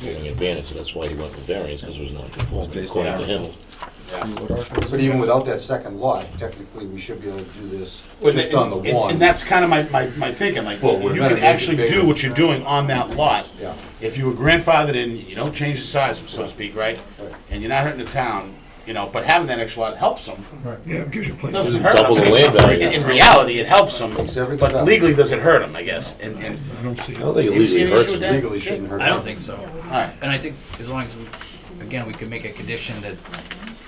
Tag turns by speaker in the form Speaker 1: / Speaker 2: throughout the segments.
Speaker 1: giving advantage, that's why he went with variance, because it was not conforming according to him.
Speaker 2: But even without that second lot, technically, we should be able to do this
Speaker 3: Well,
Speaker 2: just
Speaker 3: and-
Speaker 2: on the
Speaker 3: and-
Speaker 2: one.
Speaker 3: And that's kind of my, my, my thinking, like,
Speaker 2: Well, we're
Speaker 3: you
Speaker 2: gonna
Speaker 3: can
Speaker 2: make it
Speaker 3: actually
Speaker 2: bigger.
Speaker 3: do what you're doing on that lot.
Speaker 2: Yeah.
Speaker 3: If you were grandfathered in, you don't change the size, so to speak, right? And you're not hurting the town, you know, but having that extra lot helps them.
Speaker 4: Yeah, it gives you places.
Speaker 3: Doesn't hurt 'em.
Speaker 1: Double the land value.
Speaker 3: In in reality, it helps them,
Speaker 2: everything
Speaker 3: but
Speaker 2: up.
Speaker 3: legally, does it hurt them, I guess? And, and,
Speaker 4: I don't see
Speaker 1: I
Speaker 4: it.
Speaker 1: don't think it
Speaker 3: You see
Speaker 1: legally
Speaker 3: an
Speaker 1: hurts
Speaker 3: issue with
Speaker 1: him.
Speaker 3: that?
Speaker 2: Legally shouldn't hurt.
Speaker 5: I don't think so.
Speaker 3: all right,
Speaker 5: And I think as long as, we again, we could make a condition that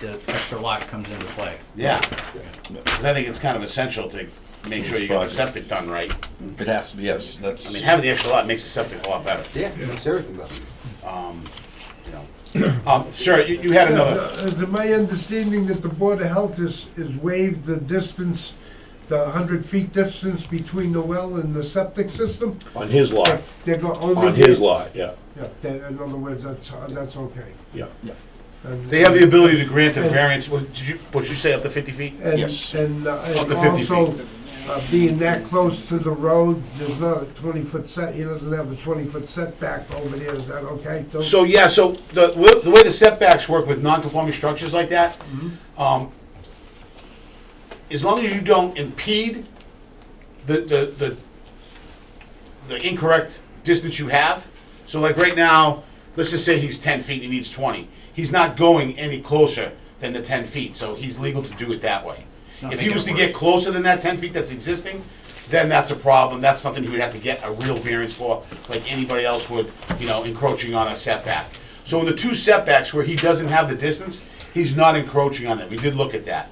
Speaker 5: the extra lot comes into play.
Speaker 3: yeah. Because I think it's kind of essential to make sure you got the septic done right.
Speaker 6: It has, to yes, that's.
Speaker 3: I mean, having the extra lot makes the septic a lot better,
Speaker 2: Yeah, it makes everything better.
Speaker 3: you know? Um, sir, you, you had another,
Speaker 7: Uh, Is it my understanding that the Board of Health has, has waived the distance, the hundred feet distance between the well and the septic system?
Speaker 3: Oh.
Speaker 1: On his lot,
Speaker 7: They're go, only.
Speaker 1: on his lot, yeah,
Speaker 7: Yeah, that- in other words, that's, uh, that's okay.
Speaker 1: yeah.
Speaker 7: And-
Speaker 3: they have the ability to grant a variance, what, did you, what did you say, up to fifty feet?
Speaker 7: And,
Speaker 6: Yes.
Speaker 7: and uh, and
Speaker 3: Up to 50 feet.
Speaker 7: also, uh, being that close to the road, there's not a twenty-foot set, he doesn't have a twenty-foot setback over there, is that okay? Don't-
Speaker 3: So, yeah, so the, wi- the way the setbacks work with non-conforming structures like that, um, as long as you don't impede the, the, the, the incorrect distance you have, so like right now, let's just say he's ten feet, he needs twenty, he's not going any closer than the ten feet, so he's legal to do it that way.
Speaker 5: not
Speaker 3: If he
Speaker 5: making
Speaker 3: was to
Speaker 5: it
Speaker 3: get
Speaker 5: work.
Speaker 3: closer than that ten feet that's existing, then that's a problem, that's something he would have to get a real variance for, like anybody else would, you know, encroaching on a setback. So in the two setbacks where he doesn't have the distance, he's not encroaching on that, we did look at that.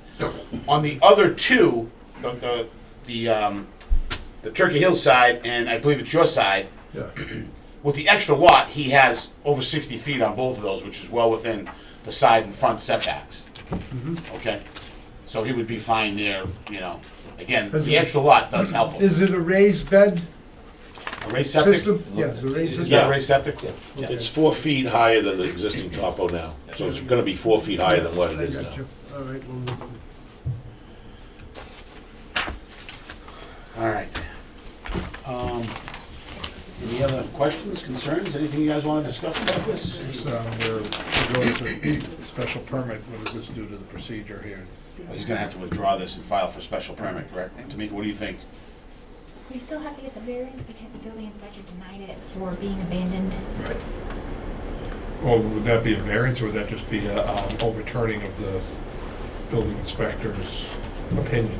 Speaker 3: On the other two, the, the, the, um, the Turkey Hill side, and I believe it's your side,
Speaker 7: Yeah.
Speaker 3: with the extra lot, he has over sixty feet on both of those, which is well within the side and front setbacks.
Speaker 7: Mm-hmm.
Speaker 3: Okay, so he would be fine there, you know, again,
Speaker 7: Is
Speaker 3: the
Speaker 7: it-
Speaker 3: extra lot does help him.
Speaker 7: Is it a raised bed
Speaker 3: A raised septic,
Speaker 7: system? Yes, a raised.
Speaker 3: is
Speaker 7: system.
Speaker 3: that a raised septic?
Speaker 1: It's four feet higher than the existing topo now, so it's gonna be four feet higher than what it
Speaker 7: I
Speaker 1: is
Speaker 7: got
Speaker 1: now.
Speaker 7: you. All right, well, we'll-
Speaker 3: All right. Um, Any other questions, concerns, anything you guys wanna discuss about this?
Speaker 4: So um, we're, we're going to special permit, what does this do to the procedure here?
Speaker 3: He's gonna have to withdraw this and file for special permit, correct? Tamika, what do you think?
Speaker 8: We still have to get the variance because the building inspector denied it for being abandoned.
Speaker 4: Or would that be a variance, or would that just be a um, overturning of the building inspector's opinion?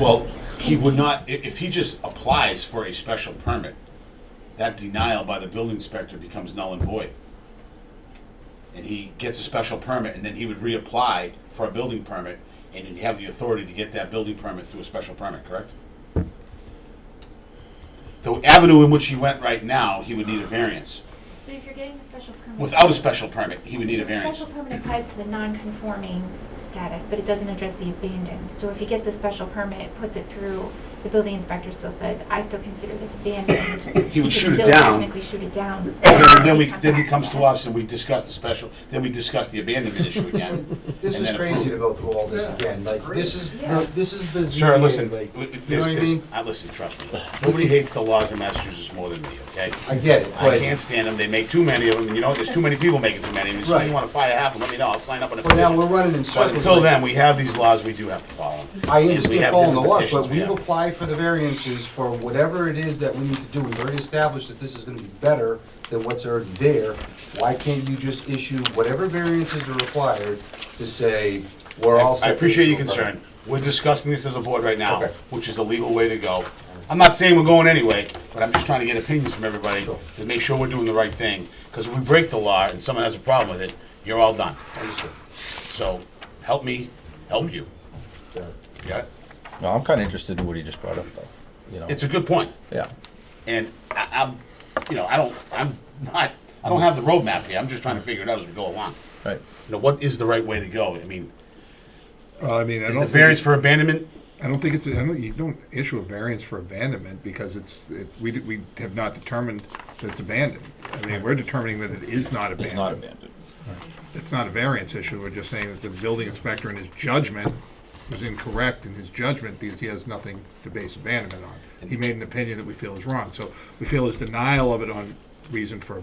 Speaker 3: Well, he would not, i- if he just applies for a special permit, that denial by the building inspector becomes null and void. And he gets a special permit, and then he would reapply for a building permit, and he'd have the authority to get that building permit through a special permit, correct? The avenue in which he went right now, he would need a variance.
Speaker 8: But if you're getting the special permit.
Speaker 3: Without a special permit, he would need a variance.
Speaker 8: Special permit applies to the non-conforming status, but it doesn't address the abandoned. So if he gets the special permit, it puts it through, the building inspector still says, I still consider this abandoned.
Speaker 3: He would
Speaker 8: could
Speaker 3: shoot it
Speaker 8: still
Speaker 3: down.
Speaker 8: Technically shoot it down.
Speaker 3: And then we, then he comes to us and we discuss the special, then we discuss the abandonment issue again.
Speaker 2: This
Speaker 3: and
Speaker 2: is
Speaker 3: then
Speaker 2: crazy
Speaker 3: approve.
Speaker 2: to go through all this again, like, this is, the- this is the
Speaker 3: Sir,
Speaker 2: ZBA,
Speaker 3: listen,
Speaker 2: like,
Speaker 3: w-
Speaker 2: you know
Speaker 3: this,
Speaker 2: what I
Speaker 3: this,
Speaker 2: mean?
Speaker 3: I, listen, trust me. Nobody hates the laws in Massachusetts more than me, okay?
Speaker 2: I get it,
Speaker 3: I can't
Speaker 2: but,
Speaker 3: stand them. They make too many of them, and you know, there's too many people making too many. of them. So if
Speaker 2: Right.
Speaker 3: you wanna fire half, let me know. I'll sign up on a
Speaker 2: but now we're
Speaker 3: petition.
Speaker 2: running in
Speaker 3: But
Speaker 2: circles.
Speaker 3: until then, we have these laws, we do have to follow them.
Speaker 2: I
Speaker 3: We have
Speaker 2: understand following the
Speaker 3: different
Speaker 2: laws, but
Speaker 3: petitions we
Speaker 2: we've
Speaker 3: have.
Speaker 2: applied for the variances for whatever it is that we need to do. We've already established that this is gonna be better than what's already there. Why can't you just issue whatever variances are required to say, we're all
Speaker 3: I
Speaker 2: set?
Speaker 3: appreciate your concern. We're discussing this as a board right now,
Speaker 2: Okay.
Speaker 3: which is the legal way to go. I'm not saying we're going anyway, but I'm just trying to get opinions from everybody
Speaker 2: Sure.
Speaker 3: to make sure we're doing the right thing. Because if we break the law and someone has a problem with it, you're all done.
Speaker 2: Understood.
Speaker 3: So help me, help you.
Speaker 2: Got it.
Speaker 3: You Got it?
Speaker 6: No, I'm kind of interested in what he just brought up, though. You know,
Speaker 3: It's a good point.
Speaker 6: yeah.
Speaker 3: And I, I'm, you know, I don't, I'm not, I don't have the roadmap here. I'm just trying to figure it out as we go along.
Speaker 6: Right.
Speaker 3: You know, what is the right way to go? I mean,
Speaker 4: Uh, I mean, I
Speaker 3: is
Speaker 4: don't.
Speaker 3: the
Speaker 4: think
Speaker 3: variance
Speaker 4: it-
Speaker 3: for abandonment?
Speaker 4: I don't think it's, I don't, you don't issue a variance for abandonment because it's, it, we, d- we have not determined that it's abandoned. I mean, we're determining that it is not abandoned.
Speaker 6: It's not abandoned.
Speaker 4: It's not a variance issue, we're just saying that the building inspector in his judgment was incorrect in his judgment because he has nothing to base abandonment on. He made an opinion that we feel is wrong, so we feel his denial of it on reason for